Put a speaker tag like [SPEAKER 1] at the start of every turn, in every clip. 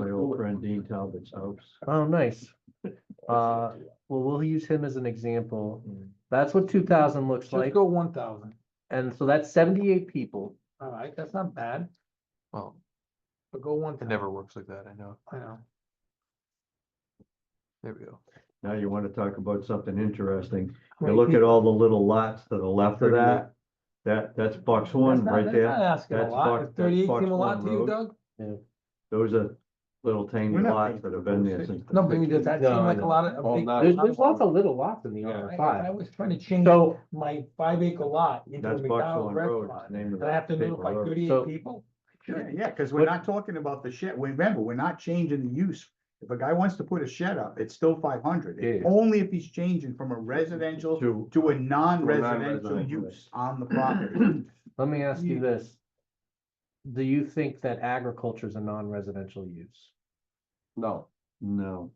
[SPEAKER 1] Aaron Dean Talbot's house.
[SPEAKER 2] Oh, nice. Uh, well, we'll use him as an example.
[SPEAKER 1] Mm.
[SPEAKER 2] That's what two thousand looks
[SPEAKER 3] Just
[SPEAKER 2] like.
[SPEAKER 3] go one thousand,
[SPEAKER 2] And so that's seventy-eight people.
[SPEAKER 3] all right, that's not bad,
[SPEAKER 4] Well,
[SPEAKER 3] but go one
[SPEAKER 4] it
[SPEAKER 3] thousand,
[SPEAKER 4] never works like that, I know.
[SPEAKER 3] I know.
[SPEAKER 4] There we go.
[SPEAKER 1] Now you want to talk about something interesting. You
[SPEAKER 3] many
[SPEAKER 1] look at all the little lots to the left of
[SPEAKER 3] Thirty-eight.
[SPEAKER 1] that. That, that's box
[SPEAKER 3] That's
[SPEAKER 1] one
[SPEAKER 3] not-
[SPEAKER 1] right
[SPEAKER 3] that's
[SPEAKER 1] there.
[SPEAKER 3] Not asking a
[SPEAKER 1] That's
[SPEAKER 3] lot,
[SPEAKER 1] Fox-
[SPEAKER 3] Is
[SPEAKER 1] that's
[SPEAKER 3] thirty-eight
[SPEAKER 1] Fox
[SPEAKER 3] seem a lot
[SPEAKER 1] Pond
[SPEAKER 3] to you,
[SPEAKER 1] Road.
[SPEAKER 3] Doug?
[SPEAKER 1] Those are little tiny
[SPEAKER 5] We're not
[SPEAKER 1] lots
[SPEAKER 5] making
[SPEAKER 1] that have been there since. the
[SPEAKER 3] No, but I mean, does that seem
[SPEAKER 5] No,
[SPEAKER 3] like a
[SPEAKER 5] no.
[SPEAKER 3] lot of? a
[SPEAKER 5] Well,
[SPEAKER 3] big-
[SPEAKER 5] not-
[SPEAKER 2] There's, there's lots of little lots in the
[SPEAKER 5] Yeah.
[SPEAKER 2] R
[SPEAKER 3] I- I
[SPEAKER 2] five.
[SPEAKER 3] was trying to change
[SPEAKER 2] So,
[SPEAKER 3] my five acre lot into a
[SPEAKER 1] That's Buckstone
[SPEAKER 3] McDonald's
[SPEAKER 1] Road. it's
[SPEAKER 3] restaurant,
[SPEAKER 1] named
[SPEAKER 3] and I have to
[SPEAKER 1] after
[SPEAKER 3] notify
[SPEAKER 1] Paper Road.
[SPEAKER 2] So-
[SPEAKER 3] thirty-eight people?
[SPEAKER 5] Yeah, yeah, because we're not talking about the shed. Remember, we're not changing the use. If a guy wants to put a shed up, it's still five hundred.
[SPEAKER 2] Yeah.
[SPEAKER 5] Only if he's changing from a residential
[SPEAKER 1] To-
[SPEAKER 5] to a non-residential
[SPEAKER 1] non-residential.
[SPEAKER 5] use on the property.
[SPEAKER 2] let me ask you
[SPEAKER 5] Yeah.
[SPEAKER 2] this. Do you think that agriculture is a non-residential use?
[SPEAKER 6] No,
[SPEAKER 1] No,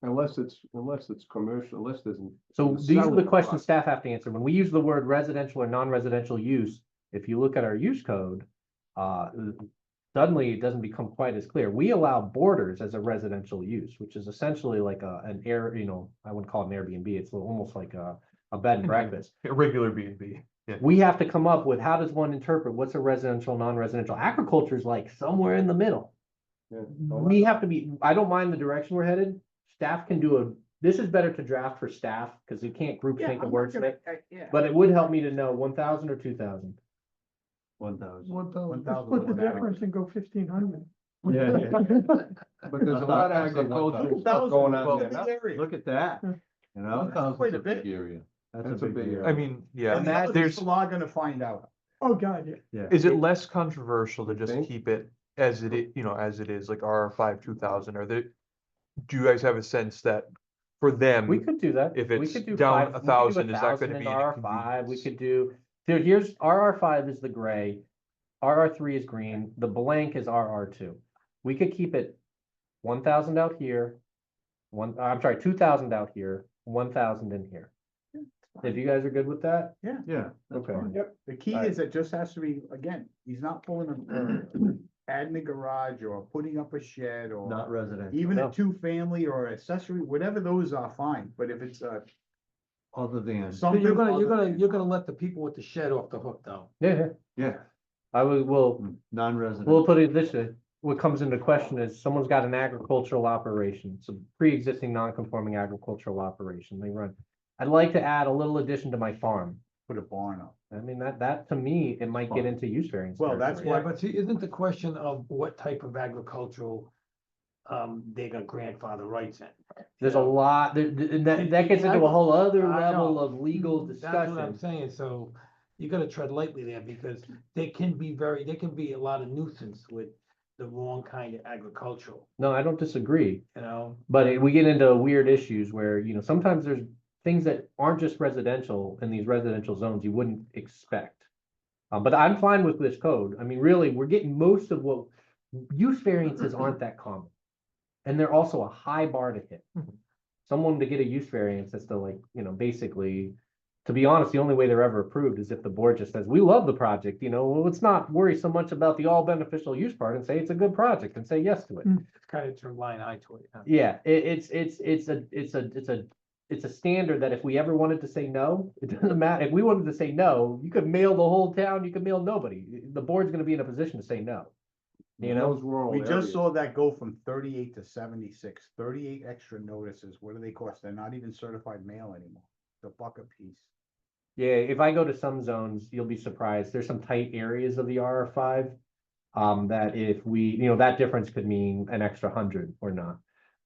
[SPEAKER 6] unless it's, unless it's commercial, unless there's. an-
[SPEAKER 2] So
[SPEAKER 6] The
[SPEAKER 2] these are the
[SPEAKER 6] selling
[SPEAKER 2] questions
[SPEAKER 6] price.
[SPEAKER 2] staff have to answer. When we use the word residential or non-residential use, if you look at our use code, uh, suddenly it doesn't become quite as clear. We allow borders as a residential use, which is essentially like a, an air, you know, I wouldn't call it an Airbnb. It's almost like a, a bed
[SPEAKER 5] Mm-hmm.
[SPEAKER 2] and breakfast.
[SPEAKER 4] A Regular B and B.
[SPEAKER 2] We have to come up with how does one interpret what's a residential, non-residential? Agriculture is like somewhere in the middle.
[SPEAKER 6] yeah, all that.
[SPEAKER 2] We
[SPEAKER 5] uh,
[SPEAKER 2] have to be, I don't mind the direction we're headed. Staff can do a, this is better to draft for staff because you can't group
[SPEAKER 5] Yeah,
[SPEAKER 2] think
[SPEAKER 5] I'm
[SPEAKER 2] of
[SPEAKER 5] not
[SPEAKER 2] words.
[SPEAKER 5] gonna- I- yeah.
[SPEAKER 2] But it would help me to know one thousand or two thousand.
[SPEAKER 1] one thousand.
[SPEAKER 3] What
[SPEAKER 5] One thousand Split the one acre. difference
[SPEAKER 3] and go fifteen hundred.
[SPEAKER 1] Yeah,
[SPEAKER 6] But there's a lot
[SPEAKER 4] I thought-
[SPEAKER 6] of
[SPEAKER 4] I said one
[SPEAKER 6] agricultural
[SPEAKER 4] thousand.
[SPEAKER 6] stuff going on
[SPEAKER 4] Well,
[SPEAKER 6] there.
[SPEAKER 5] Big
[SPEAKER 6] now.
[SPEAKER 5] area.
[SPEAKER 1] look at that, you know,
[SPEAKER 5] That's Quite a bit.
[SPEAKER 6] area.
[SPEAKER 1] that's a big
[SPEAKER 4] I
[SPEAKER 1] area.
[SPEAKER 4] mean, yeah,
[SPEAKER 5] And the other
[SPEAKER 4] there's,
[SPEAKER 5] people are gonna find out.
[SPEAKER 3] Oh, God, yeah.
[SPEAKER 1] Yeah.
[SPEAKER 4] is it less controversial to just
[SPEAKER 6] Think?
[SPEAKER 4] keep it as it is, you know, as it is, like R five two thousand, or the? Do you guys have a sense that for them?
[SPEAKER 2] We could do that.
[SPEAKER 4] If
[SPEAKER 2] We
[SPEAKER 4] it's
[SPEAKER 2] could do five-
[SPEAKER 4] down
[SPEAKER 2] we could
[SPEAKER 4] a
[SPEAKER 2] do
[SPEAKER 4] thousand, is that
[SPEAKER 2] 1,000
[SPEAKER 4] gonna
[SPEAKER 2] in
[SPEAKER 4] be an
[SPEAKER 2] RR five, we
[SPEAKER 4] inconvenience?
[SPEAKER 2] could do, dude, here's, RR five is the gray. RR three is green, the blank is RR two. We could keep it one thousand out here. One, I'm sorry, two thousand out here, one thousand in here. If you guys are good with that,
[SPEAKER 1] Yeah. that's
[SPEAKER 2] Okay.
[SPEAKER 1] fine.
[SPEAKER 5] Yep. The key
[SPEAKER 2] Alright.
[SPEAKER 5] is it just has to be, again, he's not pulling a, uh, adding a garage or putting up a shed or.
[SPEAKER 1] Not residential,
[SPEAKER 5] Even
[SPEAKER 2] No.
[SPEAKER 5] a two-family or accessory, whatever those are, fine, but if it's a
[SPEAKER 1] other than,
[SPEAKER 5] something.
[SPEAKER 3] You're gonna, you're
[SPEAKER 5] other
[SPEAKER 3] gonna,
[SPEAKER 5] than-
[SPEAKER 3] you're gonna let the people with the shed off the hook, though.
[SPEAKER 2] yeah, yeah,
[SPEAKER 1] yeah,
[SPEAKER 2] I would, will,
[SPEAKER 1] non-residential.
[SPEAKER 2] We'll put it this way, what comes into question is someone's got an agricultural operation, some pre-existing non-conforming agricultural operation they run. I'd like to add a little addition to my farm.
[SPEAKER 5] Put a barn up.
[SPEAKER 2] I mean, that, that to me, it might get into use variance.
[SPEAKER 5] Well, that's
[SPEAKER 2] territory.
[SPEAKER 3] Yeah,
[SPEAKER 5] Right.
[SPEAKER 3] but see, isn't the question of what type of agricultural, um, they got grandfather rights in?
[SPEAKER 2] There's a lot, there- th- and that, that gets into a whole other
[SPEAKER 3] I know. Mm-hmm.
[SPEAKER 2] level of legal
[SPEAKER 3] That's what I'm
[SPEAKER 2] discussion.
[SPEAKER 3] saying, so you gotta tread lightly there, because they can be very, they can be a lot of nuisance with the wrong kind of agricultural,
[SPEAKER 2] No, I don't disagree,
[SPEAKER 3] you know?
[SPEAKER 2] but it- we get into weird issues where, you know, sometimes there's things that aren't just residential in these residential zones you wouldn't expect. Uh, but I'm fine with this code. I mean, really, we're getting most of what, use variances aren't that common. And they're also a high bar to hit.
[SPEAKER 4] Mhm.
[SPEAKER 2] Someone to get a use variance that's to like, you know, basically, to be honest, the only way they're ever approved is if the board just says, we love the project, you know, well, let's not worry so much about the all beneficial use part and say it's a good project and say yes to it.
[SPEAKER 3] Mm. It's kind of turned blind eye to it. huh?
[SPEAKER 2] Yeah, it, it's, it's, it's a, it's a, it's a, it's a standard that if we ever wanted to say no, it doesn't matter. If we wanted to say no, you could mail the whole town, you could mail nobody. The board's gonna be in a position to say no. You know?
[SPEAKER 6] Those rural
[SPEAKER 5] We
[SPEAKER 6] areas.
[SPEAKER 5] just saw that go from thirty-eight to seventy-six. Thirty-eight extra notices. What do they cost? They're not even certified mail anymore. The buck a piece.
[SPEAKER 2] Yeah, if I go to some zones, you'll be surprised. There's some tight areas of the RR five. Um, that if we, you know, that difference could mean an extra hundred or not.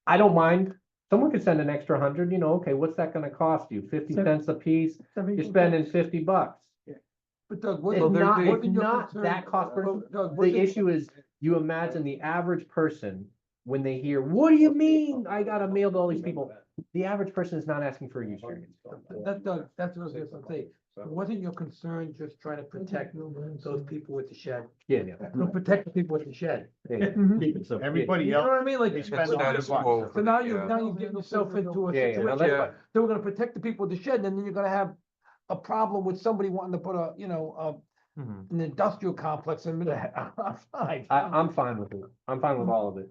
[SPEAKER 2] I don't mind. Someone could send an extra hundred, you know, okay, what's that gonna cost you? Fifty
[SPEAKER 3] Seven-
[SPEAKER 2] cents a piece? You're spending fifty bucks.
[SPEAKER 3] But Doug, what?
[SPEAKER 2] It's
[SPEAKER 3] what-
[SPEAKER 2] not-
[SPEAKER 3] what
[SPEAKER 2] it's
[SPEAKER 3] did your
[SPEAKER 2] not
[SPEAKER 3] concern-
[SPEAKER 2] that cost per-
[SPEAKER 3] Doug, Doug, what
[SPEAKER 2] The
[SPEAKER 3] did-
[SPEAKER 2] issue is, you imagine the average person, when they hear, what do you mean? I gotta mail to all these people. The average person is not asking for a use variance.
[SPEAKER 3] That, Doug, that's what I was just gonna say. Wasn't your concern just trying to protect those people with the shed?
[SPEAKER 2] Yeah, yeah,
[SPEAKER 3] No, protect the people with the shed.
[SPEAKER 2] yeah, yeah.
[SPEAKER 1] Keep it simple.
[SPEAKER 3] You
[SPEAKER 5] Everybody
[SPEAKER 3] know
[SPEAKER 5] else,
[SPEAKER 3] what I mean? Like.
[SPEAKER 5] they
[SPEAKER 3] So
[SPEAKER 5] spend a
[SPEAKER 4] Status
[SPEAKER 5] hundred
[SPEAKER 4] quo.
[SPEAKER 5] bucks.
[SPEAKER 3] now you,
[SPEAKER 4] Yeah.
[SPEAKER 3] now you're getting yourself into a
[SPEAKER 2] Yeah, yeah, now
[SPEAKER 3] situation.
[SPEAKER 2] that's
[SPEAKER 4] Yeah.
[SPEAKER 2] fine.
[SPEAKER 3] So we're gonna protect the people with the shed, and then you're gonna have a problem with somebody wanting to put a, you know,
[SPEAKER 4] Mhm.
[SPEAKER 3] a, an industrial complex in the middle. of-
[SPEAKER 2] I, I'm fine with it. I'm fine with all of it.